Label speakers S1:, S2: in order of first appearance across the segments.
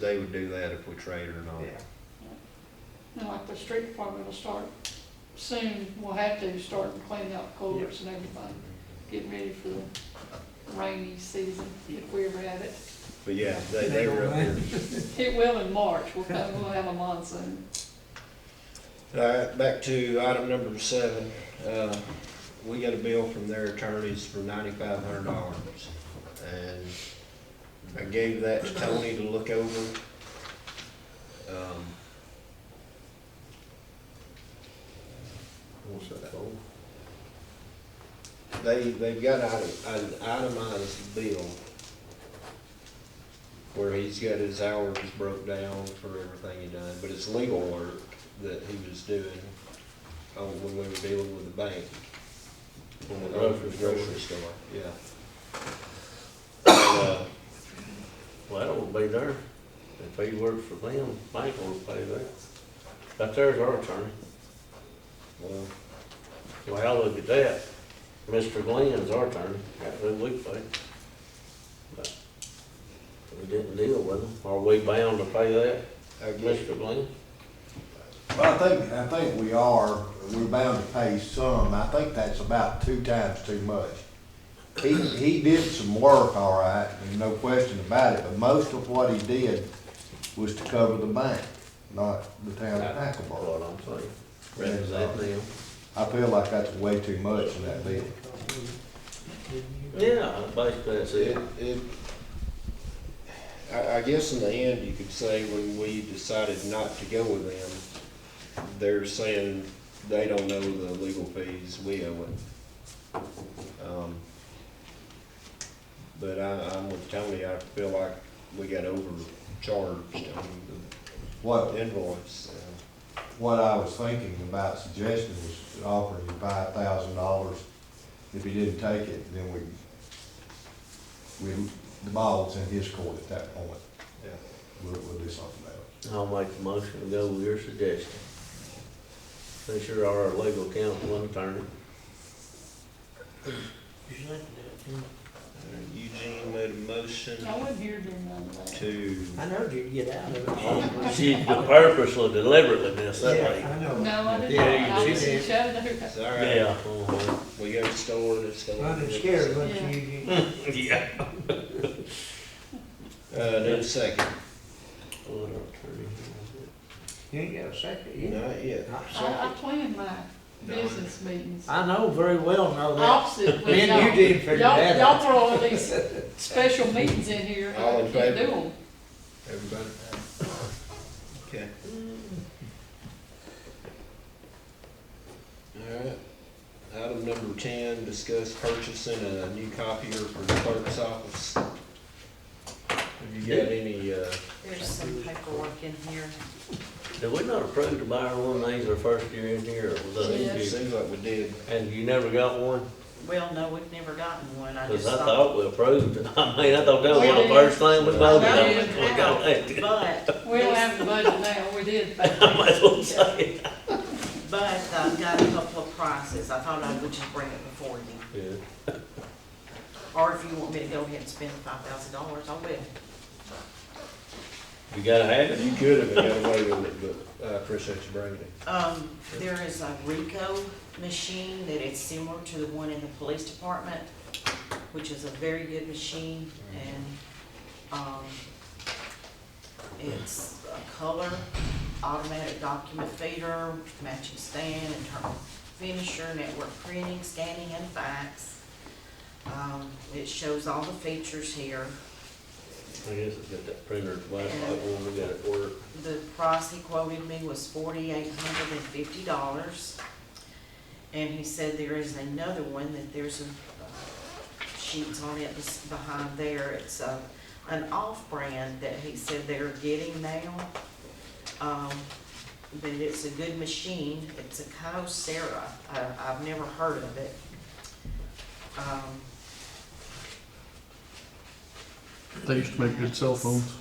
S1: They would do that if we trade or not.
S2: Yeah.
S3: And like the street department will start soon, we'll have to start cleaning out culverts and everything, getting ready for the rainy season, if we ever have it.
S1: But yeah, they, they were up here.
S3: It will in March, we'll come, we'll have a monsoon.
S1: All right, back to item number seven. Uh, we got a bill from their attorneys for ninety-five hundred dollars. And I gave that to Tony to look over. Um,
S2: What's that for?
S1: They, they've got ite- an itemized bill where he's got his hours broke down for everything he done, but it's legal work that he was doing on, when we were dealing with the bank. When we were
S2: Grocery
S1: the
S2: store.
S1: grocery store, yeah. And, uh,
S2: Well, that will be there. If he works for them, bank will pay that. But there's our attorney. Uh,
S1: well,
S2: Well, I look at that. Mr. Glenn's our attorney. That's who we pay. But we didn't deal with him. Are we bound to pay that,
S1: I guess,
S2: Mr. Glenn?
S4: Well, I think, I think we are, we're bound to pay some, I think that's about two times too much. He, he did some work, all right, there's no question about it, but most of what he did was to cover the bank, not the town of
S2: Or
S4: Hackleboro.
S2: What I'm saying. Represent them.
S4: I feel like that's way too much in that bill.
S2: Yeah, basically that's
S1: it,
S2: it.
S1: it, I, I guess in the end, you could say when we decided not to go with them, they're saying they don't know the legal fees, we owe it. Um, But I, I'm with Tony, I feel like we got overcharged on
S4: What,
S1: the invoice. uh,
S4: what I was thinking about suggesting was offering you five thousand dollars. If he didn't take it, then we, we, the ball's in his court at that point.
S1: yeah.
S4: We'll, we'll do something else.
S2: I'll make the motion to go with your suggestion. Since you're our legal counsel and attorney.
S1: Eugene made a motion
S3: I wasn't here during none of that.
S1: to,
S5: I know you'd get out of it.
S2: She purposely deliberately missed that
S5: Yeah,
S2: way.
S5: I know.
S3: No, I
S2: Yeah,
S3: didn't,
S2: you
S3: I
S2: did.
S3: was in Chattanooga.
S1: it's all right,
S2: Yeah. uh-huh.
S1: we go to the store, it's going.
S5: Running scared, wasn't
S3: Yeah.
S5: you? you-
S2: Yeah.
S1: Uh, need a second.
S5: You ain't got a second, you?
S1: Not yet.
S5: Not a
S3: I, I
S5: second.
S3: planned my business meetings.
S5: I know very well know that.
S3: Opposite
S5: Me
S3: with
S5: and you
S3: Oh, y'all.
S5: didn't figure
S3: Y'all,
S5: that
S3: y'all
S5: out.
S3: throw all these special meetings in here, I
S1: All in
S3: can't do
S1: favor?
S3: them.
S1: Everybody? Okay. Alright, item number ten, discuss purchasing a new copier for the clerk's office. Have you got any, uh,
S6: There's some paperwork in here.
S2: Did we not approve to buy her one of these our first year in here, or was that
S1: it
S3: Yes.
S2: you?
S1: seems like we did,
S2: And you never got one?
S6: Well, no, we've never gotten one. I just
S2: Cause I
S6: thought.
S2: thought we approved it. I mean, I thought that was
S3: We
S2: one of the
S3: did.
S2: first things we voted on.
S6: No,
S2: when We got elected.
S6: But,
S3: We don't have the budget now, we did back
S2: I
S3: then.
S2: might as well say it.
S6: but I've got a couple of prices. I thought I would just bring it before you.
S2: Yeah.
S6: Or if you want me to go ahead and spend five thousand dollars, I will.
S2: You gotta have it.
S1: you could have got away with it, but I appreciate you bringing it.
S6: Um, there is a Rico machine that is similar to the one in the police department, which is a very good machine and, um, it's a color, automatic document feeder, matching stand, internal finisher, network printing, scanning and fax. Um, it shows all the features here.
S2: I guess it's got that printer, black light one, we got it work.
S6: The price he quoted me was forty-eight hundred and fifty dollars. And he said there is another one, that there's a uh, sheets on it bes- behind there. It's a, an off-brand that he said they're getting now. Um, but it's a good machine. It's a Kyocera. I, I've never heard of it. Um,
S7: They used to make good cell phones.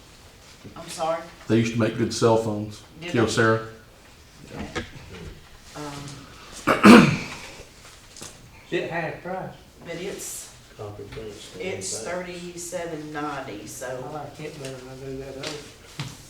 S6: I'm sorry.
S7: They used to make good cell phones.
S6: Did they?
S7: Kyocera.
S6: Um,
S5: Is it half price?
S6: but it's,
S2: Copy prints.
S6: it's
S2: thirty.
S6: thirty-seven ninety,
S5: I
S6: so.
S5: like it better than I do that other.